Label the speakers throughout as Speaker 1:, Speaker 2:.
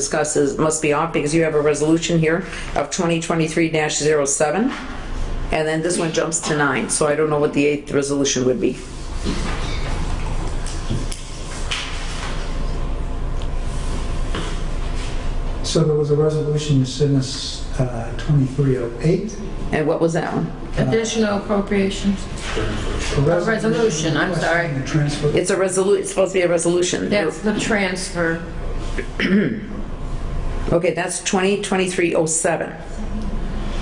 Speaker 1: discussed is, must be off because you have a resolution here of 2023-07. And then this one jumps to nine, so I don't know what the eighth resolution would be.
Speaker 2: So there was a resolution you sent us, uh, 2308.
Speaker 1: And what was that one?
Speaker 3: Additional appropriations.
Speaker 2: A
Speaker 3: resolution, I'm sorry.
Speaker 2: requesting the Transfer.
Speaker 1: It's a resolu, it's supposed to be a resolution.
Speaker 3: That's the transfer.
Speaker 1: Okay, that's 2023-07.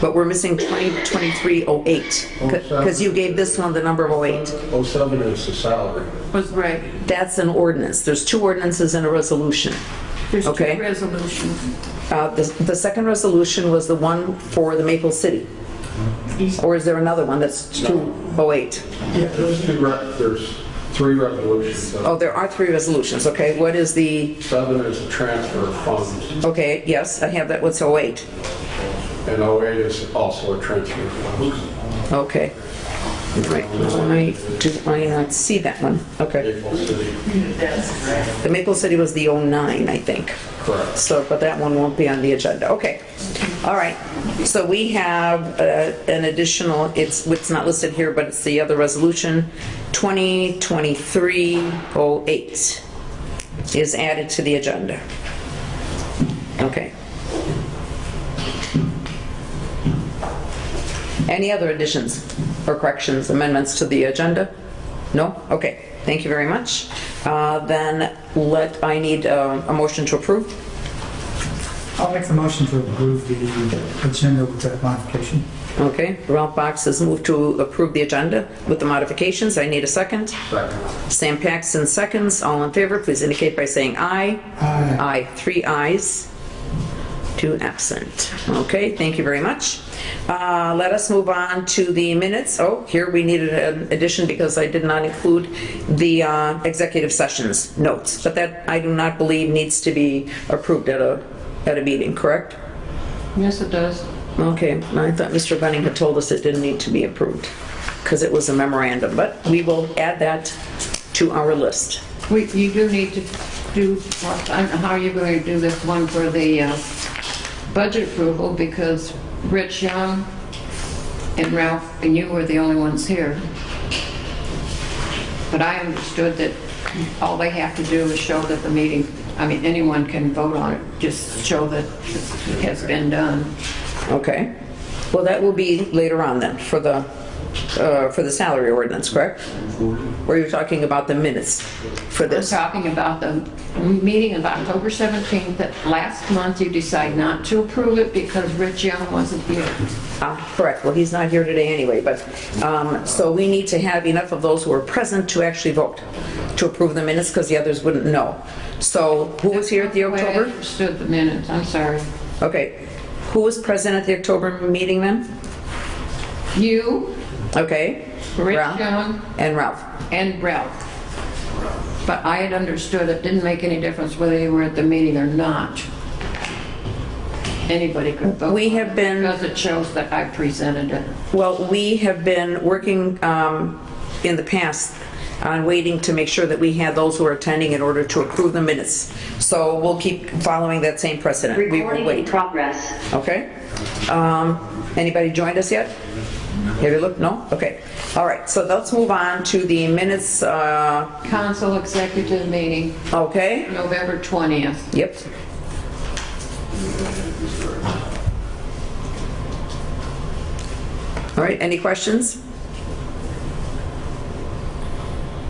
Speaker 1: But we're missing 2023-08, because you gave this one the number oh of 08.
Speaker 4: 07 Oh, is the salary.
Speaker 3: Was right.
Speaker 1: That's an ordinance. There's two ordinances and a resolution.
Speaker 3: There's two
Speaker 1: Okay.
Speaker 3: resolutions.
Speaker 1: Uh, The the second resolution was the one for the Maple City. Or is there another one that's Oh, 208?
Speaker 4: Yeah, there's two, re- there's three resolutions.
Speaker 1: Oh, there are three resolutions, okay. What is the,
Speaker 4: Seven is the transfer of funds,
Speaker 1: okay, yes, I have that, what's 08?
Speaker 4: and 08 is also a transfer of funds.
Speaker 1: Okay. Right, why do I not see that one? Okay.
Speaker 4: Maple City,
Speaker 1: The Maple City was the 09, I think.
Speaker 4: correct.
Speaker 1: So, but that one won't be on the agenda. Okay. All right. So we have uh, an additional, it's, it's not listed here, but it's the other resolution, 2023-08 is added to the agenda. Okay. Any other additions or corrections, amendments to the agenda? No? Okay. Thank you very much. Uh, Then let, I need uh, a motion to approve.
Speaker 2: I'll make the motion to approve the agenda with that modification.
Speaker 1: Okay, Ralph Box has moved to approve the agenda with the modifications. I need a second.
Speaker 4: Second.
Speaker 1: Sam Paxton seconds. All in favor, please indicate by saying aye.
Speaker 2: Aye.
Speaker 1: Aye, three ayes, two absent. Okay, thank you very much. Uh, Let us move on to the minutes. Oh, here we needed an addition because I did not include the uh, executive sessions notes. But that, I do not believe, needs to be approved at a, at a meeting, correct?
Speaker 3: Yes, it does.
Speaker 1: Okay, I thought Mr. Bunning had told us it didn't need to be approved, because it was a memorandum, but we will add that to our list.
Speaker 3: We, you do need to do, I don't know how you're going to do this one for the uh, budget approval because Rich Young and Ralph and you were the only ones here. But I understood that all they have to do is show that the meeting, I mean, anyone can vote on it, just show that it has been done.
Speaker 1: Okay. Well, that will be later on then, for the, uh, for the salary ordinance, correct? Were you talking about the minutes for
Speaker 3: We're
Speaker 1: this?
Speaker 3: talking about the meeting of October 17th, that last month you decide not to approve it because Rich Young wasn't here.
Speaker 1: Ah, Correct, well, he's not here today anyway, but, um, so we need to have enough of those who are present to actually vote, to approve the minutes, because the others wouldn't know. So who was here at the
Speaker 3: Wait, I
Speaker 1: October?
Speaker 3: understood the minutes, I'm sorry.
Speaker 1: Okay, who was present at the October meeting then?
Speaker 3: You,
Speaker 1: Okay.
Speaker 3: Rich
Speaker 1: Ralph
Speaker 3: Young,
Speaker 1: And Ralph.
Speaker 3: and Ralph. But I had understood it didn't make any difference whether you were at the meeting or not. Anybody could vote.
Speaker 1: We have been-
Speaker 3: Because it shows that I presented it.
Speaker 1: Well, we have been working um, in the past on waiting to make sure that we had those who are attending in order to approve the minutes. So we'll keep following that same precedent. We will
Speaker 5: Recording in
Speaker 1: wait,
Speaker 5: progress.
Speaker 1: okay? Um, Anybody joined us yet? Have you looked? No? Okay. All right, so let's move on to the minutes, uh,
Speaker 3: Council executive meeting,
Speaker 1: okay?
Speaker 3: November 20th.
Speaker 1: Yep. All right, any questions?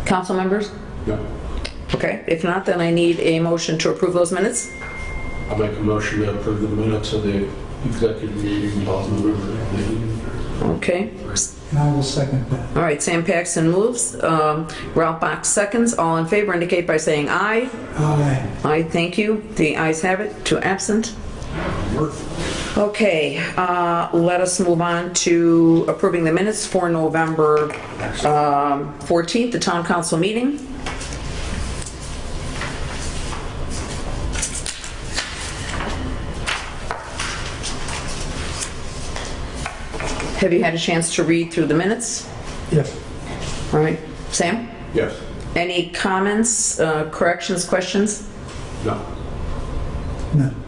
Speaker 1: Council members?
Speaker 4: No.
Speaker 1: Okay, if not, then I need a motion to approve those minutes.
Speaker 4: I make a motion to approve the minutes of the executive meeting of November.
Speaker 1: Okay,
Speaker 2: And I will second that.
Speaker 1: all right, Sam Paxton moves, um, Ralph Box seconds, all in favor indicate by saying aye.
Speaker 2: Aye.
Speaker 1: Aye, thank you. The ayes have it, two absent. Okay, uh, let us move on to approving the minutes for November um, 14th, the town council meeting. Have you had a chance to read through the minutes?
Speaker 2: Yes.
Speaker 1: All right, Sam?
Speaker 4: Yes.
Speaker 1: Any comments, uh, corrections, questions?
Speaker 4: No.
Speaker 2: No.